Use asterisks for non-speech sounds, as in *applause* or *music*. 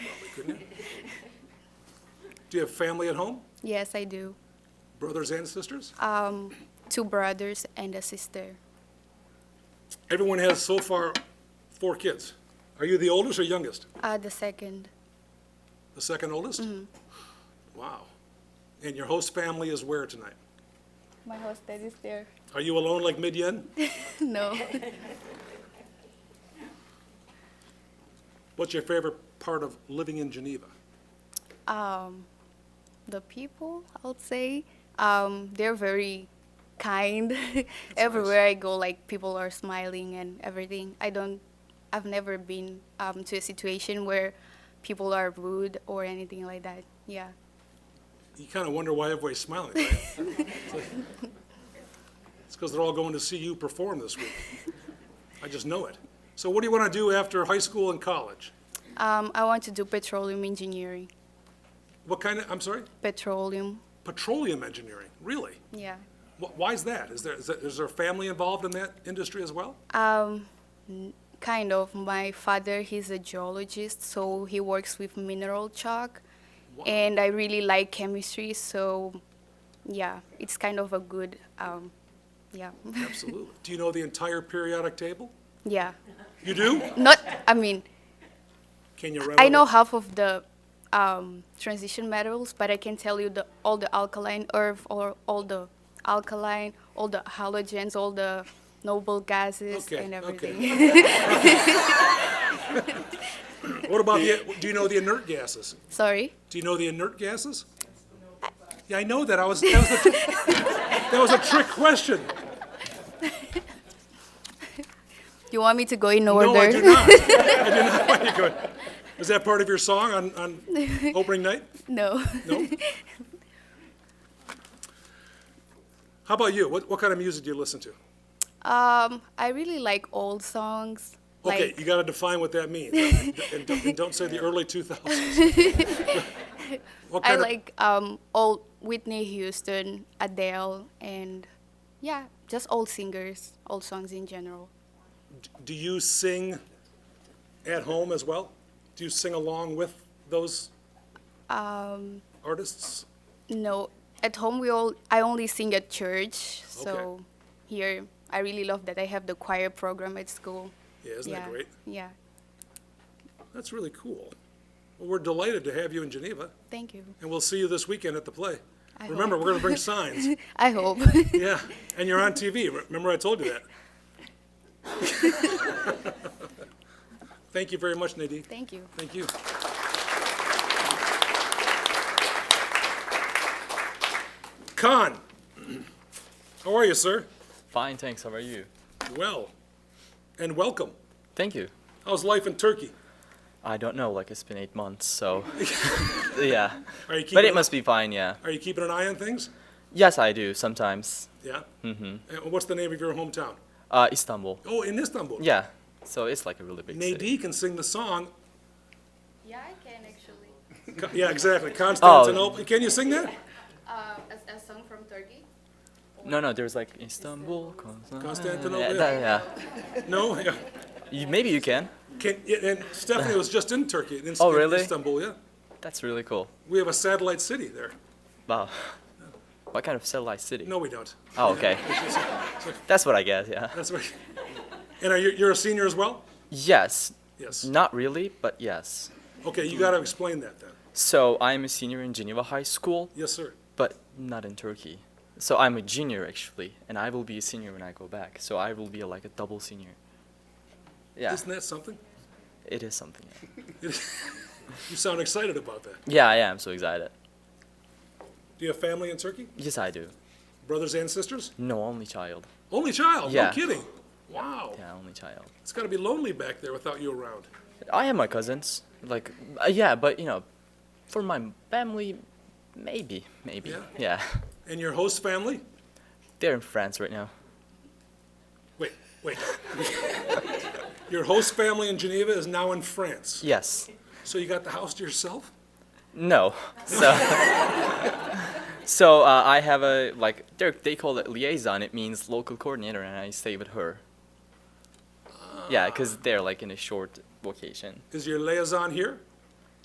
*laughs* Do you have family at home? Yes, I do. Brothers and sisters? Um, two brothers and a sister. Everyone has so far four kids. Are you the oldest or youngest? Uh, the second. The second oldest? Wow. And your host family is where tonight? My hostess is there. Are you alone like Midyan? *laughs* no. What's your favorite part of living in Geneva? Um, the people, I would say, um, they're very kind. *laughs* Everywhere I go, like people are smiling and everything. I don't. I've never been um, to a situation where people are rude or anything like that. Yeah. You kind of wonder why everybody's smiling, right? It's because they're all going to see you perform this week. I just know it. So what do you want to do after high school and college? Um, I want to do petroleum engineering. What kind of, I'm sorry? Petroleum. Petroleum engineering, really? Yeah. Wh- Why is that? Is there, is there- is there a family involved in that industry as *laughs* well? Um, n- kind of. My father, he's a geologist, so he works with mineral chalk, Wow. and I really like chemistry. So, yeah, it's kind of a good, um, yeah, *laughs* Absolutely. Do you know the entire periodic table? yeah. You do? Not, I mean, Can you rattle? I know half of the um, transition metals, but I can tell you the all the alkaline earth, or all the alkaline, all the halogens, all the noble gases, Okay, and okay. everything. *laughs* What about the, do you know the inert gases? Sorry. Do you know the inert gases? Yeah, I know that. I was, that was a, *laughs* that was a trick question. You want me to go in order? No, I do not. I do not. *laughs* Why you go- Is that part of your song on, on opening night? *laughs* No. *laughs* No? How about you? What, what kind of music do you listen to? Um, I really like old songs. Okay, Like you gotta define what that *laughs* means, and and don't, and don't say the early two thousands. What I kind of- like um old Whitney Houston, Adele, and yeah, just old singers, old songs in general. Do you sing at home as well? Do you sing along with those Um, artists? no, at home we all I only sing at church, so here I really love that I have the choir program at school. Yeah, isn't yeah, that great? Yeah, That's really cool. Well, we're delighted to have you in Geneva, thank you. *laughs* and we'll see you this weekend at the play. I Remember, hope. we're gonna bring *laughs* signs. I hope. *laughs* Yeah, and you're on TV. Remember I told you *laughs* that? *laughs* Thank you very much, Nadine. thank you. Thank you. Khan, how are you, sir? Fine, thanks. How are you? Well, and welcome. Thank you. How's life in Turkey? I don't know, like it's been eight months, *laughs* so yeah. Are you keeping, But it must be fine, yeah. Are you keeping an eye on things? Yes, I do sometimes. Yeah. Mm-hmm. And what's the name of your hometown? Uh, Istanbul. Oh, in Istanbul. Yeah. So it's like a really big city. Nadine can sing the song. Yeah, I can actually. Ka- Yeah, exactly. Constantinople. Oh. Can you sing that? Uh, a, a song from Turkey. No, no. There's like Istanbul, Constantinople. Yeah, Constantinople. that- No. Yeah. yeah. You, maybe you can. Can, yeah, and Stephanie was just in Turkey. In, Oh, in really? Istanbul. Yeah. That's really cool. We have a satellite city there. Wow. *laughs* What kind of satellite city? No, we don't. *laughs* Oh, okay. That's what I guess. Yeah. That's right. And are you, you're a senior as well? Yes. Yes. Not really, but yes. Okay, you got to explain that then. So I'm a senior in Geneva High School. Yes, sir. but not in Turkey. So I'm a junior actually, and I will be a senior when I go back. So I will be like a double senior. Yeah, Isn't that something? it is something. Yeah. You sound excited about that. yeah, I am so excited. Do you have family in Turkey? Yes, I do. Brothers and sisters? No, only child. Only child? No Yeah. kidding. Wow. Yeah, only child. It's got to be lonely back there without you around. I have my cousins. Like, uh, yeah, but you know, for my family, maybe, maybe. Yeah. yeah. *laughs* And your host family? They're in France right now. Wait, wait. *laughs* your host family in Geneva is now in France. Yes. So you got the house to yourself? No. So, *laughs* so uh, I have a like they're- they call it liaison. It means local coordinator, and I stay with her. Yeah, because they're like in a short vacation. Is your liaison here?